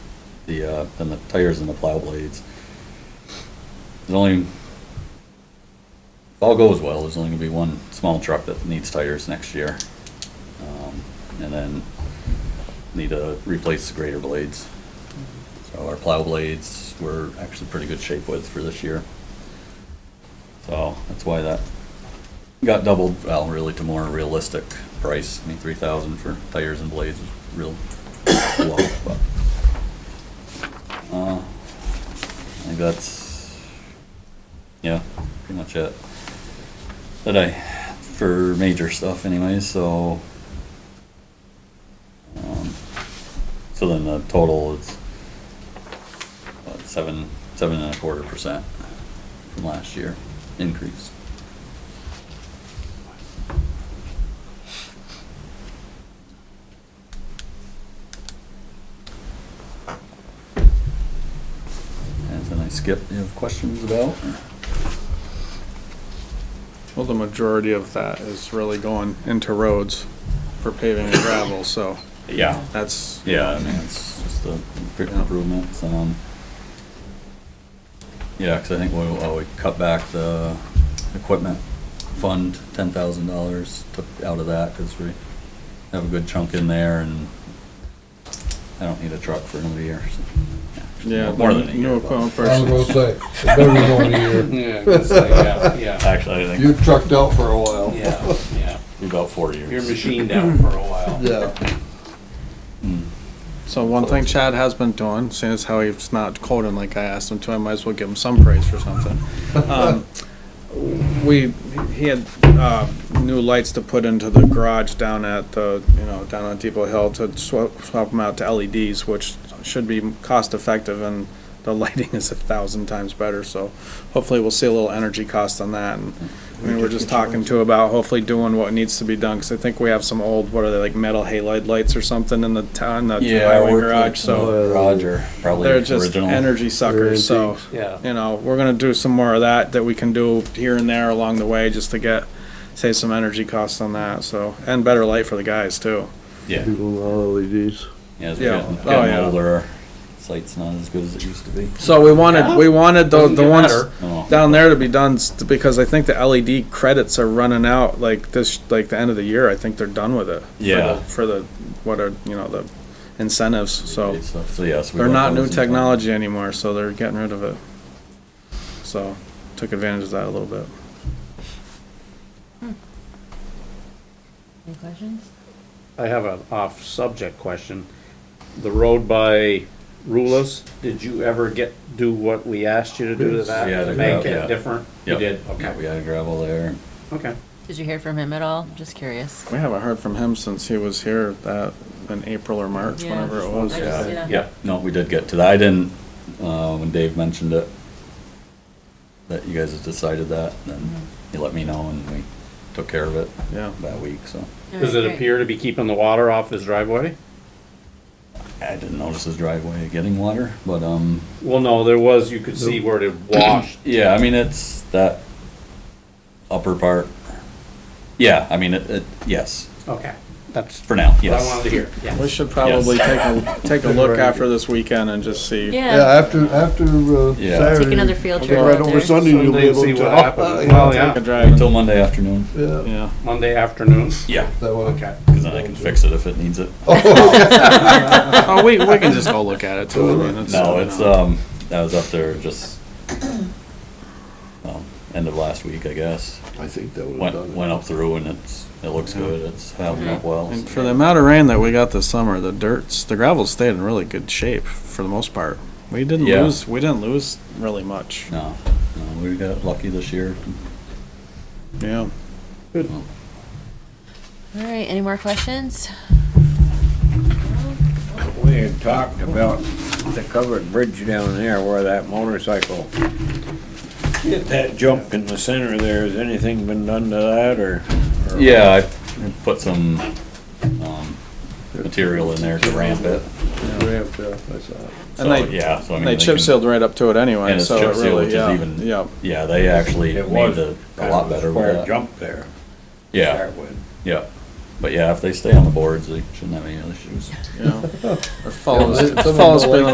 the, uh, than the tires and the plow blades. There's only, if all goes well, there's only gonna be one small truck that needs tires next year. Um, And then need to replace the grader blades. So our plow blades, we're actually pretty good shape with for this year. So that's why that got doubled, well, really to more realistic price. I mean, three thousand for tires and blades is real low, but. uh, I think that's, yeah, pretty much it. That I, for major stuff anyways, so. um, So then the total is what, seven, seven and a quarter percent from last year increase. And then I skipped, you have questions about? Well, the majority of that is really going into roads for paving and gravel, so Yeah. that's, Yeah, I mean, it's just a big improvement, um. Yeah, cause I think we, well, we cut back the equipment fund, ten thousand dollars, took out of that, cause we have a good chunk in there and I don't need a truck for another year, so. actually, yeah. More than a New year, but equipment I was gonna purchase. say, it better than one year. Yeah, it's like, yeah, yeah, actually, I You think trucked out for a while. yeah, yeah. about four years. You're machined out for a while. Yeah, Mm. So one thing Chad has been doing, seeing as how he's not quoting like I asked him to, I might as well give him some praise for something. Um, We, he had, uh, new lights to put into the garage down at the, you know, down on Depot Hill to swap, swap them out to LEDs, which should be cost effective and the lighting is a thousand times better, so hopefully we'll see a little energy cost on that and I mean, we're just talking to about hopefully doing what needs to be done, cause I think we have some old, what are they, like metal halide lights or something in the town, the Yeah, highway garage, so Roger, probably they're just original. E energy suckers, so Yeah, you know, we're gonna do some more of that that we can do here and there along the way just to get save some energy costs on that. So and better light for the guys too. Yeah. LEDs. Yeah, as we're Yeah. getting, Oh, getting yeah. older, sight's not as good as it used to be. Oh, So we wanted we wanted the Doesn't the get ones better. No. down there to be done s- because I think the LED credits are running out like this like the end of the year. I think they're done with it. Yeah. For the, for the what are you know the incentives. So Great stuff. So yes, we they're got not those new in- technology anymore, so they're getting rid of it. So took advantage of that a little bit. Any questions? I have an off-subject question. The road by Rulus, did you ever get, do what we asked you to do to that? Yeah, the to Make gravel, yeah. it different? You Yep. did, Yeah, we okay, had gravel there. okay. Did you hear from him at all? Just curious. We haven't heard from him since he was here that in April or March, Yeah. whenever it I was. just- Yeah. Yeah, No, we did get to that. I didn't, uh, when Dave mentioned it, that you guys had decided that, then Mm-hmm. he let me know and we took care of it Yeah. that week, so. does it appear to be keeping the water off his driveway? I didn't notice his driveway getting water, but, um, Well, no, there was, you could see where it washed. yeah, I mean, it's that upper part. Yeah, I mean, it, it, yes, Okay, that's for now, what yes. I wanted to hear, yeah. We should probably take a, take a look after this weekend and just see. Yeah, Yeah, after, after, uh, Yeah. Saturday. take another field I'll trip go Right out over there. Sunday, you'll be Sunday and able see to. what happens. Well, Take a yeah, drive. Until Monday afternoon. Yeah, Yeah. Monday afternoon, Yeah, that one. okay. cause then I can fix it if it needs it. Oh, we, we can just go look at it too. I mean, it's- uh, No, it's, um, I was up there just, um, end of last week, I guess. I think that would've Went, done it. went up through and it's, it looks good, it's holding up well. And for the amount of rain that we got this summer, the dirts, the gravel stayed in really good shape for the most part. We didn't Yeah. lose, we didn't lose really much. No, no, we got lucky this year. Yeah. All right, any more questions? We had talked about the covered bridge down there where that motorcycle, hit that jump in the center there, has anything been done to that or? or- Yeah, I put some, um, material in there to ramp it. Ramp, yeah, I saw it. So, And they, yeah, so I mean. they can- chip sealed right up to it anyway, And it's so chip it sealed, which really, is yeah, even- yeah. Yeah, they actually It made was the, a kind lot of a better Square with that. jump there. to Yeah, start with. yeah. But yeah, if they stay on the boards, they shouldn't have any issues. Yeah. It follows, Some of it them follows don't like